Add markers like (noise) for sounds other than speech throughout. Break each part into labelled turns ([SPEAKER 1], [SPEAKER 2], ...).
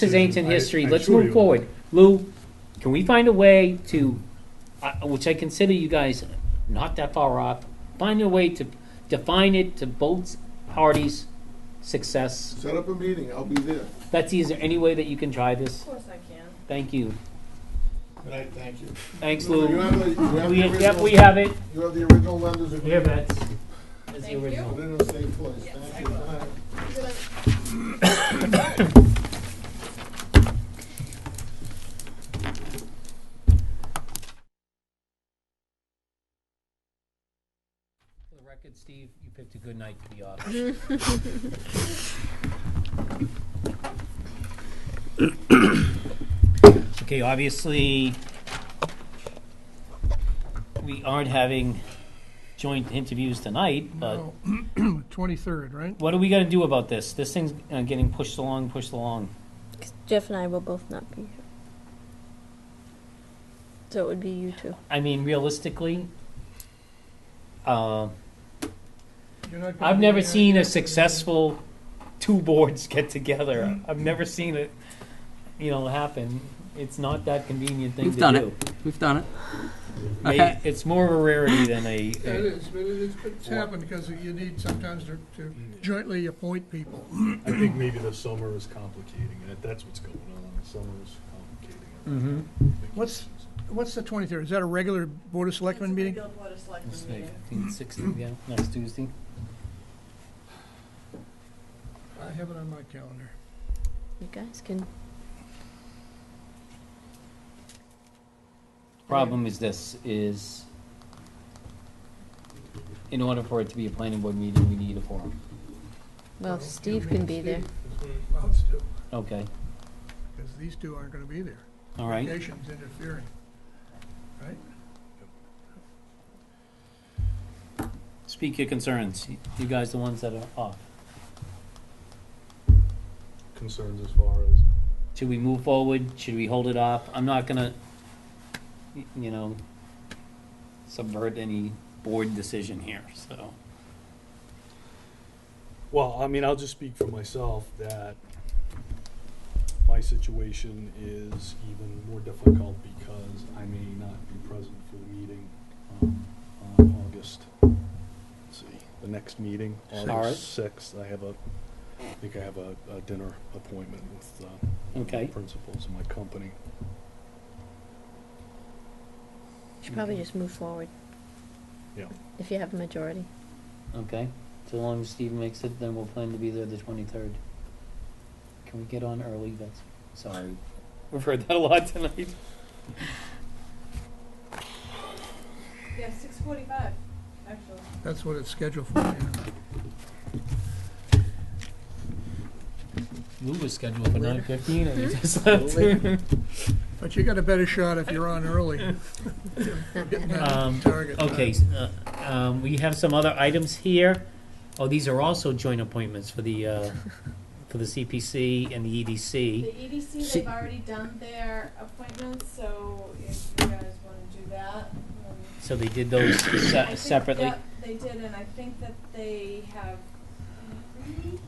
[SPEAKER 1] This is ancient
[SPEAKER 2] Hmm, I-
[SPEAKER 1] history.
[SPEAKER 2] I'm
[SPEAKER 1] Let's
[SPEAKER 2] sure
[SPEAKER 1] move
[SPEAKER 2] you-
[SPEAKER 1] forward. Lou, can we find a way to, I- which I consider you guys not that far off, find a way to define it to both parties' success?
[SPEAKER 3] Set up a meeting, I'll be there.
[SPEAKER 1] Betsy, is there any way that you can try this?
[SPEAKER 4] Of course I can.
[SPEAKER 1] Thank you.
[SPEAKER 3] Good night, thank you.
[SPEAKER 1] Thanks,
[SPEAKER 3] You
[SPEAKER 1] Lou.
[SPEAKER 3] have the- you
[SPEAKER 1] We,
[SPEAKER 3] have the
[SPEAKER 1] yep, we
[SPEAKER 3] original-
[SPEAKER 1] have it.
[SPEAKER 3] You have the original lenders agreement.
[SPEAKER 1] Here, Bets. That's the
[SPEAKER 4] Thank you.
[SPEAKER 1] original.
[SPEAKER 3] Put it in the same place, thank you. Good night.
[SPEAKER 1] For the record, Steve, you picked a good night to be off. Okay, obviously, we aren't having joint interviews tonight, but
[SPEAKER 2] Twenty-third, right?
[SPEAKER 1] what are we gonna do about this? This thing's uh, getting pushed along, pushed along.
[SPEAKER 5] Jeff and I will both not be here. So it would be you two.
[SPEAKER 1] I mean, realistically, uh,
[SPEAKER 2] You're not gonna
[SPEAKER 1] I've
[SPEAKER 2] be
[SPEAKER 1] never
[SPEAKER 2] here.
[SPEAKER 1] seen a successful two boards (laughs) get together. I've never seen it, you know, happen. It's not that convenient thing
[SPEAKER 6] We've
[SPEAKER 1] to
[SPEAKER 6] done
[SPEAKER 1] do.
[SPEAKER 6] We've done it.
[SPEAKER 1] May-
[SPEAKER 6] Okay.
[SPEAKER 1] It's more of a rarity than a.
[SPEAKER 2] Yeah, (laughs) It is, but it is, but it's happened because you need sometimes to to jointly appoint people.
[SPEAKER 7] I think maybe the summer is complicating it. That's what's going on. The summer is complicating it.
[SPEAKER 1] Mm-hmm.
[SPEAKER 2] What's, what's the twenty-third? Is that a regular Board of Selectmen meeting?
[SPEAKER 4] It's a regular Board of Selectmen meeting.
[SPEAKER 1] 15, 16, yeah, next Tuesday.
[SPEAKER 2] I have it on my calendar.
[SPEAKER 5] You guys can.
[SPEAKER 1] Problem is this, is in order for it to be a planning board meeting, we need a forum.
[SPEAKER 5] Well, Steve can be there.
[SPEAKER 2] Loves to,
[SPEAKER 1] Okay,
[SPEAKER 2] because these two aren't gonna be there.
[SPEAKER 1] all right.
[SPEAKER 2] Vacation's interfering, right?
[SPEAKER 1] Speak your concerns. You- You guys the ones that are off.
[SPEAKER 7] Concerns as far as
[SPEAKER 1] Should we move forward? Should we hold it off? I'm not gonna, y- you know, subvert any board decision here, so.
[SPEAKER 7] well, I mean, I'll just speak for myself that my situation is even more difficult because I may not be present for the meeting um, on August. let's see, the next meeting, August sixth. I have a, I think I have a, a dinner appointment with uh,
[SPEAKER 1] Okay.
[SPEAKER 7] principals of my company.
[SPEAKER 5] Should probably just move forward.
[SPEAKER 7] Yeah.
[SPEAKER 5] If you have a majority.
[SPEAKER 1] Okay, so long as Steve makes it, then we'll plan to be there the twenty-third. Can we get on early, that's, sorry, we've heard that a lot tonight.
[SPEAKER 4] Yeah, six forty-five, actually.
[SPEAKER 2] That's what it's scheduled for, yeah.
[SPEAKER 1] Lou was scheduled for
[SPEAKER 2] Later.
[SPEAKER 1] nine fifteen and he just left.
[SPEAKER 2] But you got a better shot if you're on
[SPEAKER 1] (laughs)
[SPEAKER 2] early. Getting that
[SPEAKER 1] Um,
[SPEAKER 2] target time.
[SPEAKER 1] Okay, s- uh, um, we have some other items here. Oh, these are also joint appointments for the, uh, for the CPC and the E
[SPEAKER 4] The
[SPEAKER 1] EDC.
[SPEAKER 4] EDC,
[SPEAKER 1] See-
[SPEAKER 4] they've already done their appointments, so if you guys wanna do that. um,
[SPEAKER 1] So they did those
[SPEAKER 4] I
[SPEAKER 1] se-
[SPEAKER 4] think-
[SPEAKER 1] separately.
[SPEAKER 4] Yep, they did, and I think that they have three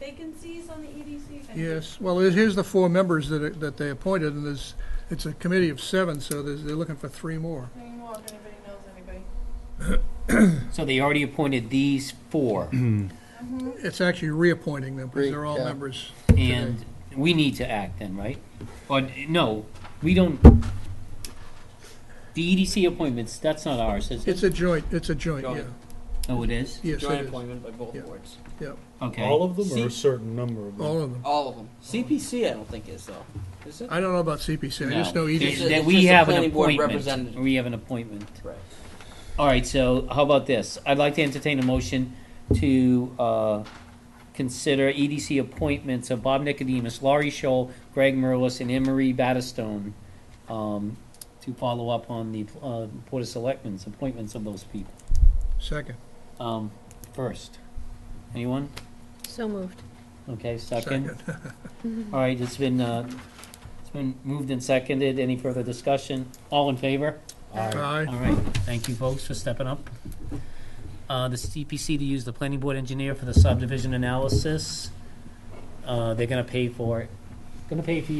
[SPEAKER 4] vacancies on the EDC. if I'm-
[SPEAKER 2] Yes, well, it- here's the four members that, are- that they appointed, and there's, it's a committee of seven, so there's, they're looking for three more.
[SPEAKER 4] Three more, if anybody knows anybody.
[SPEAKER 1] So they already appointed these four,
[SPEAKER 2] It's actually reappointing them, because they're all
[SPEAKER 3] Re- yeah.
[SPEAKER 2] members.
[SPEAKER 1] and we need to act then, right? Or, no, we don't, the EDC appointments, that's not ours, is it?
[SPEAKER 2] It's a joint, it's a joint, yeah.
[SPEAKER 6] Joint.
[SPEAKER 1] Oh, it is?
[SPEAKER 2] Yes, it
[SPEAKER 6] Joint
[SPEAKER 2] is.
[SPEAKER 6] appointment by both
[SPEAKER 2] Yeah.
[SPEAKER 6] boards.
[SPEAKER 7] All
[SPEAKER 1] Okay.
[SPEAKER 7] of them, or
[SPEAKER 6] See-
[SPEAKER 7] a certain number of them.
[SPEAKER 2] All of them.
[SPEAKER 6] All of them. CPC, I don't think is though. Is it?
[SPEAKER 2] I don't know about CPC, I just E
[SPEAKER 1] No.
[SPEAKER 2] know
[SPEAKER 6] It's
[SPEAKER 2] EDC.
[SPEAKER 6] a-
[SPEAKER 1] That we
[SPEAKER 6] just a
[SPEAKER 1] have an
[SPEAKER 6] planning board
[SPEAKER 1] appointment,
[SPEAKER 6] representative.
[SPEAKER 1] we have an appointment.
[SPEAKER 6] Right.
[SPEAKER 1] All right, so how about this? I'd like to entertain a motion to uh, consider EDC appointments of Bob Nicodemus, Laurie Scholl, Greg Merlis, and Emery Battistone um, to follow up on the uh, Board of Selectmen's appointments of those people.
[SPEAKER 2] Second,
[SPEAKER 1] Um, First, anyone?
[SPEAKER 5] So moved.
[SPEAKER 1] Okay, second?
[SPEAKER 2] second.
[SPEAKER 1] All right, it's been, uh, it's been moved and seconded. Any further discussion? All in favor?
[SPEAKER 2] Aye.
[SPEAKER 1] All right, thank you folks for stepping up. Uh, the CPC to use the planning board engineer for the subdivision analysis. Uh, they're gonna pay for it. gonna pay for